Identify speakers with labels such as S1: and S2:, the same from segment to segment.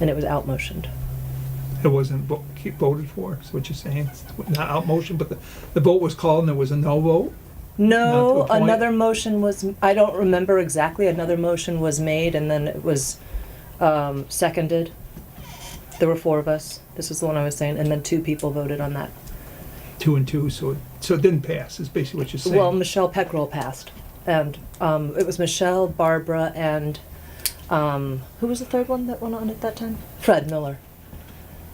S1: and it was out motioned.
S2: It wasn't vo- keep voted for, is what you're saying? Not out motion, but the, the vote was called and there was a no vote? Not to
S1: No,
S2: a point.
S1: another motion was, I don't remember exactly, another motion was made and then it was um, seconded. There were four of us, this is the one I was saying, and then two people voted on that.
S2: Two and two, so, it- so it didn't pass, is basically what you're
S1: Well,
S2: saying.
S1: Michelle Peckrell passed, and um, it was Michelle, Barbara, and um, who was the third one that went on at that time? Fred Miller.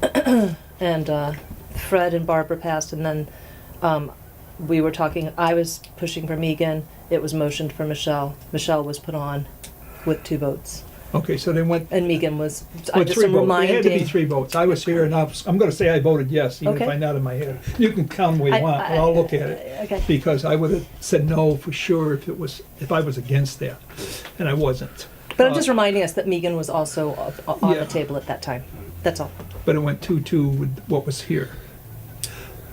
S1: and uh, Fred and Barbara passed, and then um, we were talking. I was pushing for Megan. It was motioned for Michelle. Michelle was put on with two votes,
S2: Okay, so they went,
S1: and Megan was. I
S2: with
S1: just
S2: three
S1: am
S2: votes. It
S1: reminding.
S2: had to be three votes. I was here and I was, I'm gonna say I voted yes, even if
S1: Okay.
S2: I nodded my head. You can count the way
S1: I-
S2: you want, but I'll look at it.
S1: Okay.
S2: Because I would have said no for sure if it was, if I was against that, and I wasn't.
S1: But I'm
S2: Uh,
S1: just reminding us that Megan was also up- on
S2: Yeah.
S1: the table at that time. That's all.
S2: But it went two-two with what was here,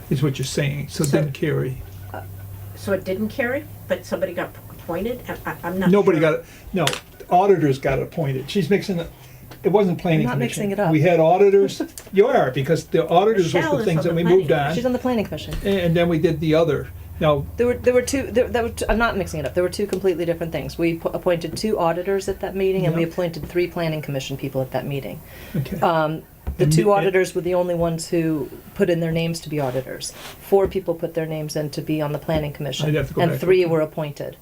S2: is what you're saying, so it
S1: So-
S2: didn't carry.
S3: So it didn't carry, but somebody got appointed? I- I- I'm not
S2: Nobody
S3: sure.
S2: got, no, auditors got appointed. She's mixing it, it wasn't planning
S1: I'm not
S2: commission.
S1: mixing it up.
S2: We had auditors, you are, because the auditors was
S3: Michelle
S2: the
S3: is
S2: things
S3: on
S2: that
S3: the
S2: we moved
S3: planning
S2: on,
S1: She's on the planning commission.
S2: and then we did the other. Now,
S1: There were there were two. There, that were t- I'm not mixing it up. There were two completely different things. We p- appointed two auditors at that meeting, and we
S2: Yeah.
S1: appointed three planning commission people at that meeting.
S2: okay,
S1: Um, the
S2: And
S1: two
S2: me-
S1: auditors were the only ones who put in their names to be auditors. Four people put their names in to be on the planning commission,
S2: I'd have to go
S1: and
S2: back.
S1: three were appointed.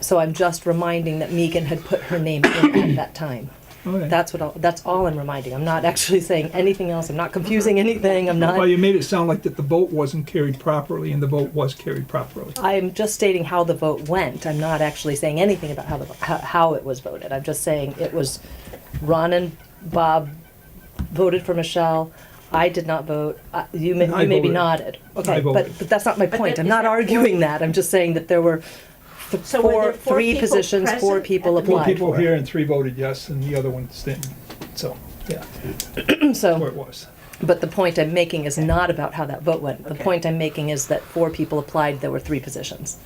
S1: So I'm just reminding that Megan had put her name in at that time.
S2: all right.
S1: That's what. I'll, that's all I'm reminding. I'm not actually saying anything else. I'm not confusing anything. I'm
S2: Well,
S1: not.
S2: you made it sound like that the vote wasn't carried properly, and the vote was carried properly.
S1: I'm just stating how the vote went. I'm not actually saying anything about how the, how, how it was voted. I'm just saying it was Ron and Bob voted for Michelle. I did not vote. Uh, you may,
S2: I
S1: you maybe
S2: voted.
S1: nodded.
S2: I
S1: Okay, but,
S2: voted.
S1: but that's not my
S3: But
S1: point.
S3: that-
S1: I'm
S3: is
S1: not
S3: that
S1: arguing
S3: four-
S1: that. I'm just saying that there were th-
S3: So were
S1: four,
S3: there four
S1: three
S3: people
S1: positions, four
S3: present
S1: people
S3: at the meeting?
S2: Four
S1: applied.
S2: people here and three voted yes, and the other ones didn't, so, yeah, that's where
S1: So,
S2: it was.
S1: but the point I'm making is not about how that vote went. The
S3: Okay.
S1: point I'm making is that four people applied. There were three positions,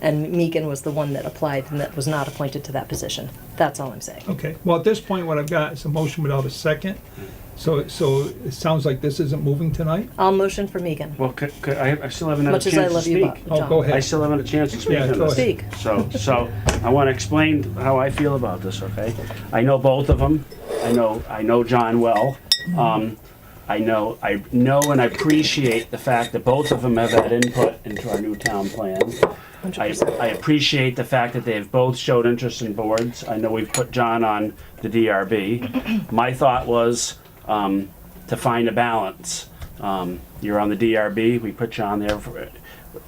S1: and Megan was the one that applied and that was not appointed to that position. That's all I'm saying.
S2: Okay, well, at this point, what I've got is a motion without a second, so, so it sounds like this isn't moving tonight?
S1: I'll motion for Megan.
S4: Well, c- c- I, I still haven't had a
S1: Much
S4: chance
S1: as I
S4: to
S1: love you, Bob.
S4: speak.
S2: Oh,
S1: John.
S2: go ahead.
S4: I still haven't had a chance to speak
S2: Yeah,
S4: on
S2: go
S4: this.
S1: ahead.
S4: So, so I want to explain how I feel about this, okay? I know both of them. I know, I know John well. Um, I know, I know and I appreciate the fact that both of them have had input into our new town plan. I,
S1: 100%.
S4: I appreciate the fact that they've both showed interest in boards. I know we've put John on the DRB. My thought was um, to find a balance. Um, you're on the DRB. We put you on there. For, it.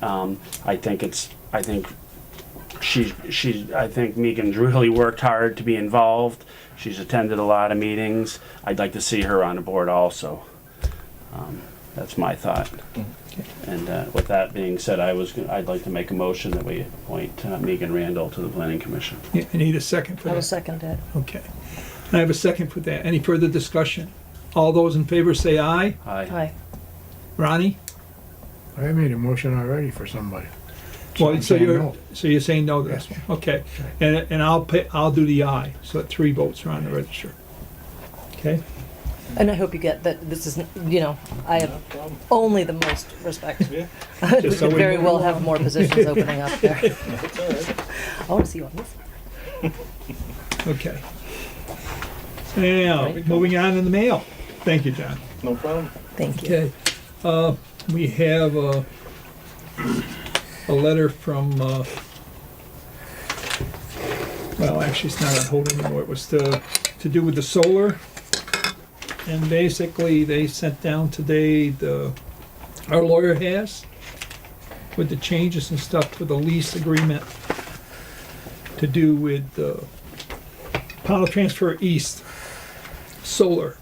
S4: um, I think it's. I think she's she's I think Megan's really worked hard to be involved. She's attended a lot of meetings. I'd like to see her on the board also. Um, that's my thought. And uh, with that being said, I was gonna, I'd like to make a motion that we appoint uh, Megan Randall to the Planning Commission.
S2: Yeah, I need a second for
S1: I
S2: that.
S1: will second it.
S2: Okay. And I have a second for that. Any further discussion? All those in favor say aye.
S4: Aye.
S1: Aye.
S2: Ronnie?
S5: I made a motion already for somebody.
S2: Well, so
S5: I'm saying
S2: you're,
S5: no.
S2: so you're saying no to this one?
S5: Yes.
S2: Okay. And, and I'll pay, I'll do the aye, so that three votes are on the register. Okay?
S1: And I hope you get that this is, you know, I have only the most respect. We
S2: Just so
S1: could
S2: we
S1: very
S2: move
S1: well have more positions opening up there. I want to see you on this.
S2: Okay. Now, moving on in the mail. Thank you, John.
S6: No problem.
S1: Thank you.
S2: Okay. Uh, we have a, a letter from, uh, well, actually, it's not on hold anymore. It was to, to do with the solar. And basically, they sent down today the, our lawyer has with the changes and stuff for the lease agreement to do with, uh, Pownell Transfer East Solar.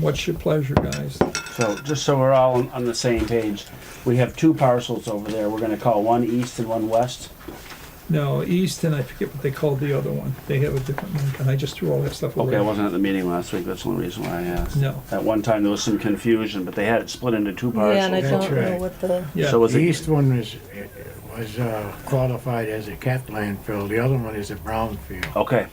S2: What's your pleasure, guys?
S4: So just so we're all on- on the same page, we have two parcels over there. We're gonna call one east and one west.
S2: No, East, and I forget what they called the other one. They have a different one, and I just threw all that stuff away.
S4: Okay, I wasn't at the meeting last week. That's the only reason why I asked.
S2: No.
S4: At one time, there was some confusion, but they had it split into two parcels.
S1: Yeah, and I don't
S5: That's
S1: know
S5: right.
S1: what the,
S2: Yeah.
S4: So was
S5: The
S4: it?
S5: east one is, was uh, qualified as a cat landfill, the other one is a brownfield.
S4: Okay,